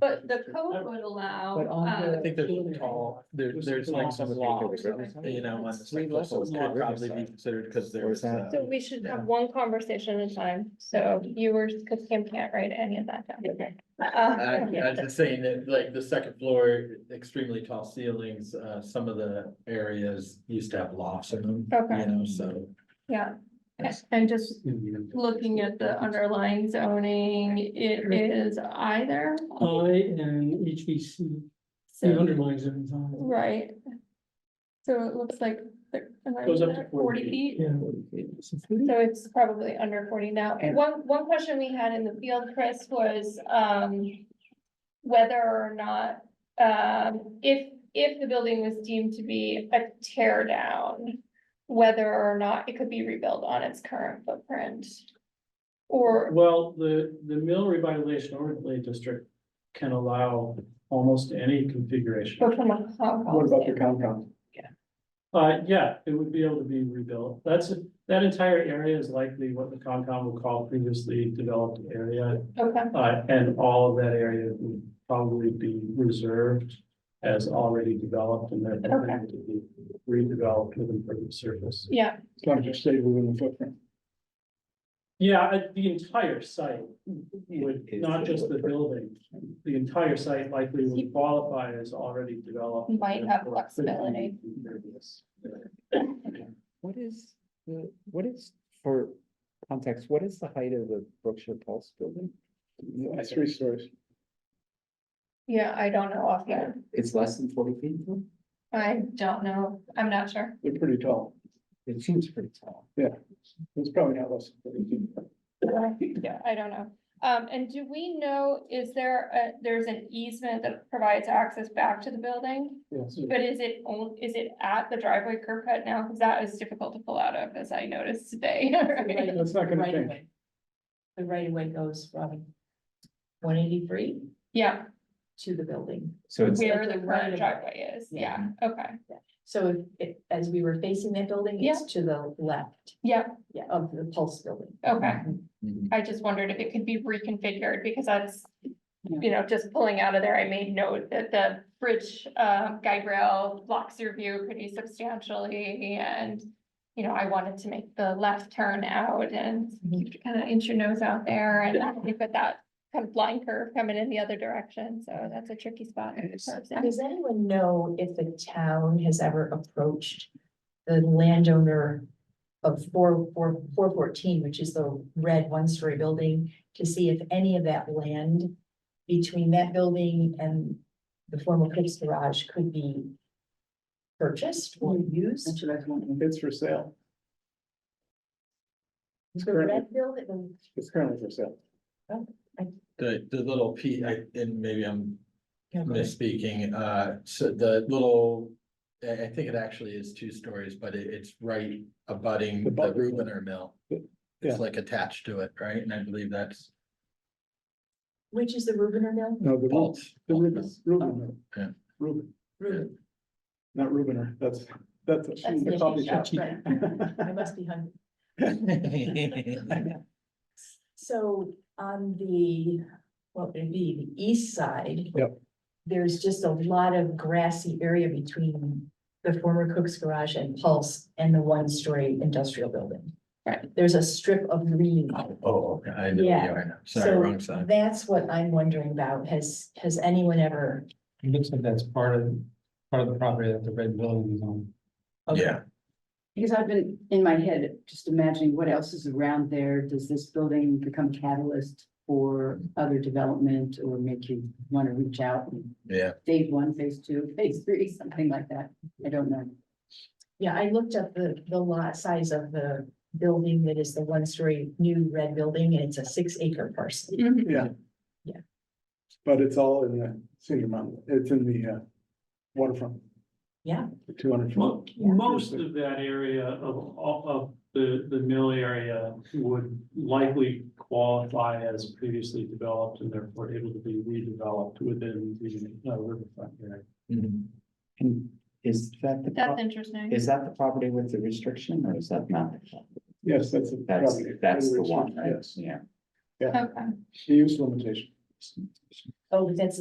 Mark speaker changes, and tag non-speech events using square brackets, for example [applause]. Speaker 1: But the code would allow,
Speaker 2: But on
Speaker 1: uh,
Speaker 3: um,
Speaker 2: the-
Speaker 4: I think there's a tall, there, there's like some law, you know, on the
Speaker 2: Three levels
Speaker 4: cyclical,
Speaker 2: on
Speaker 4: could
Speaker 2: the
Speaker 4: probably be
Speaker 2: riverside.
Speaker 4: considered, because
Speaker 2: Where's
Speaker 4: there's. uh,
Speaker 2: that?
Speaker 3: So we should
Speaker 4: Yeah.
Speaker 3: have one conversation at a time, so you were, because Kim can't write any of that down.
Speaker 4: I,
Speaker 3: Uh,
Speaker 4: I was just saying that, like, the second floor, extremely tall ceilings, uh, some of the areas used to have lofts in them, you
Speaker 3: Okay,
Speaker 4: know, so.
Speaker 3: yeah, and just looking at the underlying zoning, it is either,
Speaker 5: I and HBC, the
Speaker 3: so,
Speaker 5: underlying zones on
Speaker 3: right? So it looks like there- am I
Speaker 5: Goes up
Speaker 3: right?
Speaker 5: to 40
Speaker 3: forty
Speaker 5: it.
Speaker 3: feet,
Speaker 5: Yeah.
Speaker 3: so it's probably under forty now. And one, one question we had in the field, Chris, was, um, whether or not, um, if, if the building was deemed to be a tear down, whether or not it could be rebuilt on its current footprint. Or,
Speaker 5: Well, the, the mill revitalization overlay district can allow almost any configuration.
Speaker 3: or from a.
Speaker 6: What about the Concom?
Speaker 5: Uh, yeah, it would be able to be rebuilt. That's, that entire area is likely what the Concom would call previously developed area.
Speaker 3: Okay,
Speaker 5: Uh, and all of that area would probably be reserved as already developed and therefore
Speaker 3: Okay.
Speaker 5: able to be redeveloped with improved surface.
Speaker 3: yeah,
Speaker 6: It's not just stay within the footprint.
Speaker 5: Yeah, I- the entire site would, not just the building, the entire site likely would qualify as already developed.
Speaker 3: Might have
Speaker 5: Therefore, could be
Speaker 3: flexibility.
Speaker 5: impervious.
Speaker 2: What is, the what is, for context, what is the height of the Berkshire Pulse building?
Speaker 6: It's three stories.
Speaker 3: yeah, I don't know offhand.
Speaker 2: It's less than forty feet?
Speaker 3: I don't know, I'm not sure.
Speaker 6: They're pretty tall.
Speaker 2: It seems pretty tall.
Speaker 6: It's probably not less. than 40 feet.
Speaker 3: Yeah, I don't know. Um, and do we know, is there a, there's an easement that provides access back to the building?
Speaker 6: Yes.
Speaker 3: But is it on, is it at the driveway curb cut now? Cause that is difficult to pull out of, as I noticed today. [laughs]
Speaker 7: Right.
Speaker 6: That's not gonna
Speaker 7: Right
Speaker 6: change.
Speaker 7: away. The right of way goes from one eighty-three
Speaker 3: Yeah,
Speaker 7: to the building.
Speaker 2: So it's,
Speaker 3: where the
Speaker 7: the right
Speaker 3: current
Speaker 7: of-
Speaker 3: driveway is, yeah,
Speaker 7: Yeah.
Speaker 3: okay,
Speaker 7: So if- if, as we were facing that building, it's to the left
Speaker 3: yeah,
Speaker 7: yeah, of the Pulse Building.
Speaker 3: okay.
Speaker 2: Mhm.
Speaker 3: I just wondered if it could be reconfigured because that's, you know, just pulling out of there, I made note that the bridge, uh, guide rail blocks your view pretty substantially and, you know, I wanted to make the left turn out and kind of inch your nose out there and you've got that kind of blind curve coming in the other direction, so that's a tricky spot. for us.
Speaker 7: Does anyone know if the town has ever approached the landowner of four, four, four fourteen, which is the red one-story building, to see if any of that land between that building and the former Pips Garage could be purchased or used?
Speaker 6: That's what I want. It's for sale. It's
Speaker 7: The
Speaker 6: currently,
Speaker 7: red building,
Speaker 6: it's currently for sale.
Speaker 4: The, the little P, I, and maybe I'm misspeaking, uh, so the little, I, I think it actually is two stories, but it, it's right abutting
Speaker 6: The
Speaker 4: the
Speaker 6: bulk.
Speaker 4: Rubiner Mill.
Speaker 6: Yeah.
Speaker 4: It's like attached to it, right? And I believe that's
Speaker 7: which is the Rubiner Mill?
Speaker 6: No, the Ru-
Speaker 4: Bolt.
Speaker 6: the Ruben, Ruben.
Speaker 4: Yeah.
Speaker 6: Ruben,
Speaker 7: Rubin.
Speaker 6: not Rubener. That's, that's
Speaker 7: That's
Speaker 6: a
Speaker 7: the
Speaker 6: coffee
Speaker 7: shop,
Speaker 6: shop.
Speaker 7: right. I must be hungry. So on the, what would it be, the east side?
Speaker 6: Yep.
Speaker 7: There's just a lot of grassy area between the former Cook's Garage and Pulse and the one-story industrial building.
Speaker 3: Right.
Speaker 7: There's a strip of green.
Speaker 4: Oh, oh, okay, I know,
Speaker 7: Yeah.
Speaker 4: yeah, I know, sorry,
Speaker 7: So
Speaker 4: wrong side.
Speaker 7: That's what I'm wondering about. Has, has anyone ever?
Speaker 8: [laughs] It looks like that's part of, part of the property that the red building is on.
Speaker 7: okay.
Speaker 4: Yeah.
Speaker 9: Because I've been in my head just imagining what else is around there. Does this building become catalyst for other development or make you want to reach out? and
Speaker 4: Yeah,
Speaker 9: Phase one, phase two, phase three, something like that. I don't know.
Speaker 7: Yeah, I looked up the, the lot size of the building that is the one-story new red building and it's a six-acre parcel.
Speaker 3: Mhm.
Speaker 6: Yeah.
Speaker 7: Yeah.
Speaker 6: But it's all in the senior mountain. It's in the uh, waterfront.
Speaker 7: Yeah.
Speaker 6: The two hundred.
Speaker 5: Mo- Most of that area of, all- of the, the mill area would likely qualify as previously developed and therefore able to be redeveloped within the uh, riverfront area.
Speaker 4: Mhm.
Speaker 2: and is that the,
Speaker 3: That's
Speaker 2: pro-
Speaker 3: interesting.
Speaker 2: is that the property with the restriction or is that not? the property?
Speaker 6: Yes, that's. a-
Speaker 2: That's,
Speaker 6: probably-
Speaker 2: that's the one, right?
Speaker 6: Yes,
Speaker 3: Oh.
Speaker 2: Yeah.
Speaker 3: Okay.
Speaker 6: the use limitation.
Speaker 7: Oh, but that's